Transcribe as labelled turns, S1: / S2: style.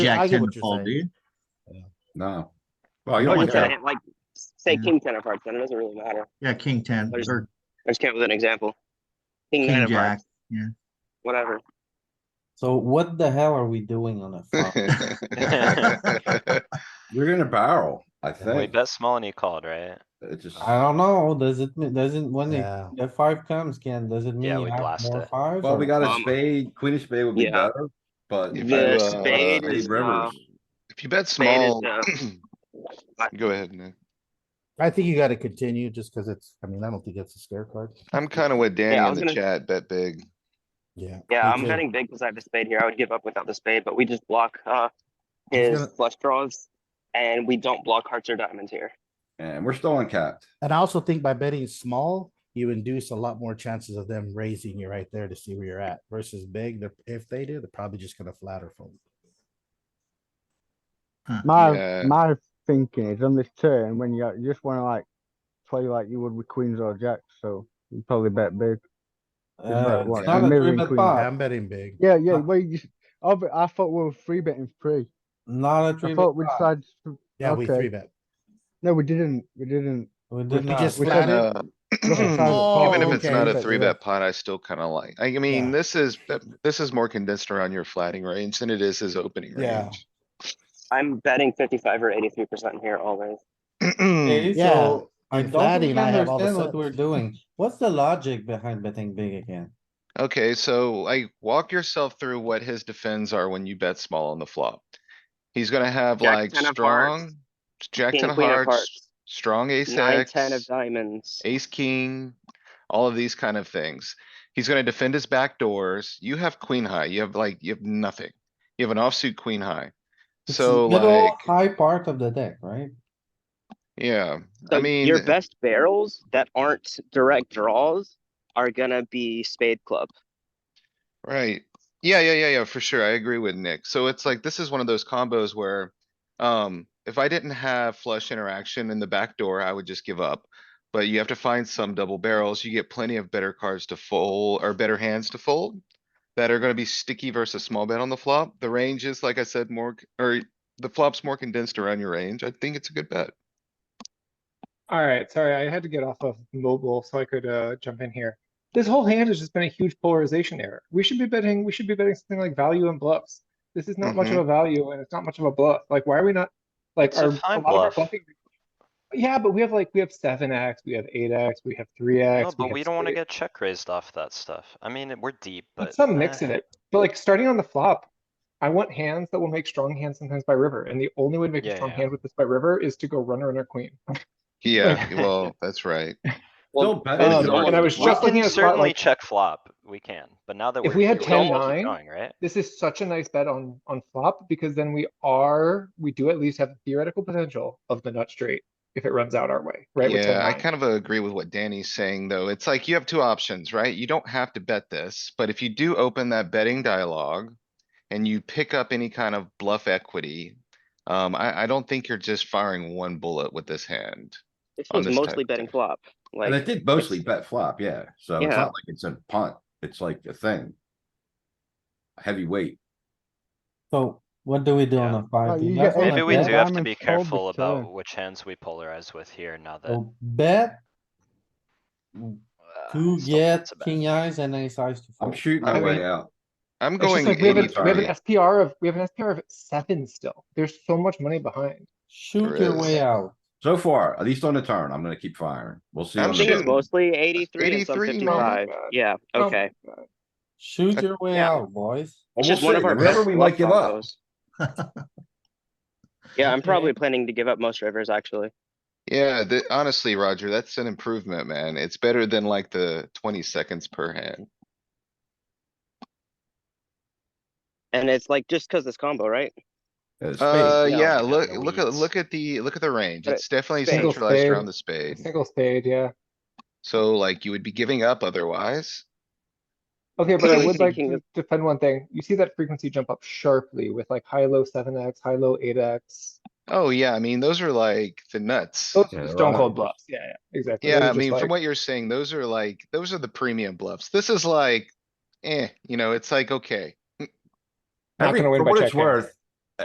S1: I
S2: Jack
S1: get
S2: ten
S1: what
S2: to
S1: you're
S2: fold,
S1: saying.
S2: do you?
S3: No. Well, you
S4: Or
S3: don't want
S4: just a
S3: that.
S4: hand- like, say
S2: Yeah.
S4: king ten of hearts, then it doesn't really matter.
S2: Yeah, king ten,
S4: I just-
S2: or
S4: I just came up with an example. King nine
S2: king
S4: of
S2: jack,
S4: hearts,
S2: yeah.
S4: whatever.
S1: So what the hell are we doing on a flop?
S3: You're gonna barrel, I
S5: We
S3: think.
S5: bet small and he called, right?
S3: It just,
S1: I don't know, does it, mean- doesn't, when the,
S6: Yeah,
S1: the five comes, Ken, does it
S5: Yeah,
S1: mean you
S5: we
S1: have
S5: blast
S1: more
S5: it.
S1: fives?
S3: well, we
S1: or-
S3: got a
S4: Um,
S3: spade, queen of spade would be
S4: yeah.
S3: better, but.
S7: If
S3: you
S7: you,
S3: bet
S7: uh,
S4: spade
S3: Spade
S4: is, um,
S3: rivers.
S7: If you bet
S4: Spade is, uh,
S7: small. Go ahead, Nick.
S6: I think you gotta continue just cuz it's, I mean, I don't think it's a scare card.
S7: I'm kinda with Danny
S4: Yeah, I
S7: in
S4: was
S7: the
S4: gonna-
S7: chat, bet big.
S6: Yeah.
S4: Yeah,
S6: me
S4: I'm
S6: too.
S4: betting big because I have a spade here. I would give up without the spade, but we just block uh his
S6: gonna-
S4: flush draws and we don't block hearts or diamonds here.
S3: And we're still uncapped.
S6: And I also think by betting small, you induce a lot more chances of them raising you right there to see where you're at versus big. They're- If they do, they're probably just gonna flatter fold.
S8: My
S2: uh,
S7: Yeah.
S8: my thinking is on this turn when you, you just want to like play like you would with queens or jacks, so you probably bet big.
S1: Uh,
S8: what,
S1: It's not a three
S8: mirroring
S1: bet
S8: queen.
S6: Yeah,
S1: pot,
S6: I'm betting big.
S8: Yeah, yeah.
S1: Uh,
S8: Well, you just I, bet- I thought we were free betting free.
S1: not a three
S8: I
S1: bet
S8: thought we
S1: pot.
S8: decided. to-
S6: Yeah, we
S8: okay.
S6: three bet.
S8: No, we didn't. We didn't.
S1: We
S6: We
S1: did not,
S6: just
S8: We
S6: flat
S8: said,
S6: it.
S7: Uh,
S8: Oh,
S7: Even if it's
S8: okay.
S7: not a
S8: Bet
S7: three
S8: big.
S7: bet pot, I still kinda like, I mean,
S6: Yeah.
S7: this is, this is more condensed around your flatting range than it is his opening
S6: Yeah.
S7: range.
S4: I'm betting fifty-five or eighty-three percent here always.
S1: okay,
S6: Yeah,
S1: so I
S6: in
S1: don't
S6: flatting,
S1: really
S6: I have all the
S1: understand what
S6: sets.
S1: we're doing, what's the logic behind betting big again?
S7: Okay, so I walk yourself through what his defends are when you bet small on the flop. He's gonna have
S4: Jack
S7: like
S4: ten of hearts,
S7: strong, jack
S4: King,
S7: ten of
S4: queen of
S7: hearts,
S4: hearts,
S7: strong ace
S4: nine, ten of
S7: X,
S4: diamonds.
S7: ace king, all of these kind of things. He's gonna defend his back doors. You have queen high, you have like, you have nothing. You have an offsuit queen high.
S1: It's
S7: So
S1: middle
S7: like,
S1: High part of the deck, right?
S7: yeah,
S4: So
S7: I mean. uh,
S4: your best barrels that aren't direct draws are gonna be spade club.
S7: Right. Yeah, yeah, yeah, yeah, for sure. I agree with Nick. So it's like, this is one of those combos where, um, if I didn't have flush interaction in the back door, I would just give up. But you have to find some double barrels. You get plenty of better cards to fold or better hands to fold that are gonna be sticky versus small bet on the flop. The range is, like I said, more, c- or the flop's more condensed around your range. I think it's a good bet.
S9: Alright, sorry, I had to get off of mobile so I could uh jump in here. This whole hand has just been a huge polarization error. We should be betting, we should be betting something like value and bluffs. This is not much of
S7: Mhm.
S9: a value and it's not much of a bluff. Like, why are we not, like,
S5: Mm-hmm. It's
S9: our,
S5: a fine
S9: a lot of our
S5: bluff.
S9: bluffing. Yeah, but we have like, we have seven X, we have eight X, we have three
S5: No,
S9: X.
S5: Oh, but we don't wanna get check raised off that stuff. I mean, we're deep, but.
S9: Some mix
S5: eh.
S9: of it, but like, starting on the flop. I want hands that will make strong hands sometimes by river, and the only way to make
S5: Yeah,
S9: a strong
S5: yeah.
S9: hand with this by river is to go runner, runner, queen.
S7: Yeah, well, that's right.
S3: Still
S4: Well,
S3: bet
S9: uh,
S3: is
S9: and I
S3: hard.
S9: was
S5: We
S9: just looking
S5: can
S9: at a spot
S5: certainly
S9: like,
S5: check flop, we can, but now that we're.
S9: If we had
S5: deep, don't
S9: 10-9,
S5: keep going, Right?
S9: this is such a nice bet on, on flop because then we are, we do at least have theoretical potential of the nut straight if it runs out our way, right? with
S7: Yeah, I
S9: 10-9.
S7: kind of agree with what Danny's saying, though. It's like you have two options, right? You don't have to bet this, but if you do open that betting dialogue and you pick up any kind of bluff equity, um, I, I don't think you're just firing one bullet with this hand.
S4: This
S7: on
S4: was
S7: this type
S4: mostly
S7: of
S4: betting
S7: thing.
S4: flop,
S3: And it
S4: like,
S3: did mostly bet flop, yeah, so it's
S4: Yeah.
S3: not like it's a punt, it's like a thing. Heavyweight,
S1: So what do we do on
S5: Yeah.
S1: a five?
S8: Like, you
S1: guys
S8: get
S1: wanna
S8: eight
S5: Maybe we
S8: bet
S5: do have to
S8: diamonds
S5: be
S8: fold the
S5: careful
S8: turn. Oh,
S5: about which hands we polarize with here now that.
S1: So bet
S5: uh,
S1: to
S5: still
S1: get
S5: it's a bet.
S1: king eyes and ace eyes to
S3: I'm
S1: fold.
S3: shooting my
S7: I
S3: way
S7: mean,
S3: out.
S7: I'm
S9: It's
S7: going
S9: just like we have,
S7: eighty
S9: a- we have an
S7: thirty.
S9: SPR of, we have an SPR of seven still. There's so much money behind.
S1: Shoot
S7: There
S1: your
S7: is.
S1: way out.
S3: So far, at least on the turn, I'm gonna keep firing, we'll see.
S7: I'm
S4: I
S3: on the
S4: think it's
S7: shooting.
S3: turn.
S4: mostly eighty-three and some
S7: 83, no, not
S4: fifty-five.
S9: bad.
S4: Yeah,
S9: No,
S4: okay.
S1: Shoot your way
S4: Yeah.
S1: out, boys.
S3: Well,
S4: It's
S3: we'll
S4: just one
S3: see.
S4: of our
S3: Remember,
S4: best
S3: we
S4: bluff
S3: might give up.
S4: combos. Yeah, I'm probably planning to give up most rivers, actually.
S7: Yeah, th- honestly, Roger, that's an improvement, man. It's better than like the twenty seconds per hand.
S4: And it's like just because this combo, right?
S3: Uh, spade.
S7: Uh,
S4: yeah,
S7: yeah,
S5: we got
S7: look,
S5: the
S7: look at,
S5: weeds.
S7: look at the, look at the range.
S4: But
S7: It's definitely
S4: spade. Single
S7: centralized around
S9: spade.
S7: the spade.
S9: Single spade, yeah.
S7: So like you would be giving up otherwise.
S9: Okay, but I
S4: Really
S9: would like
S4: thinking
S9: to
S4: of-
S9: defend one thing. You see that frequency jump up sharply with like high, low seven X, high, low eight X.
S7: Oh, yeah, I mean, those are like the nuts.
S9: Those
S3: Yeah,
S9: are
S3: they're
S9: stone
S3: all-
S9: cold bluffs. Yeah, yeah, exactly. Those
S7: Yeah, I
S9: are just
S7: mean,
S9: like-
S7: from what you're saying, those are like, those are the premium bluffs. This is like, eh, you know, it's like, okay.
S9: Not
S3: Every,
S9: gonna win
S3: for
S9: by
S3: what it's
S9: check-in.
S3: worth,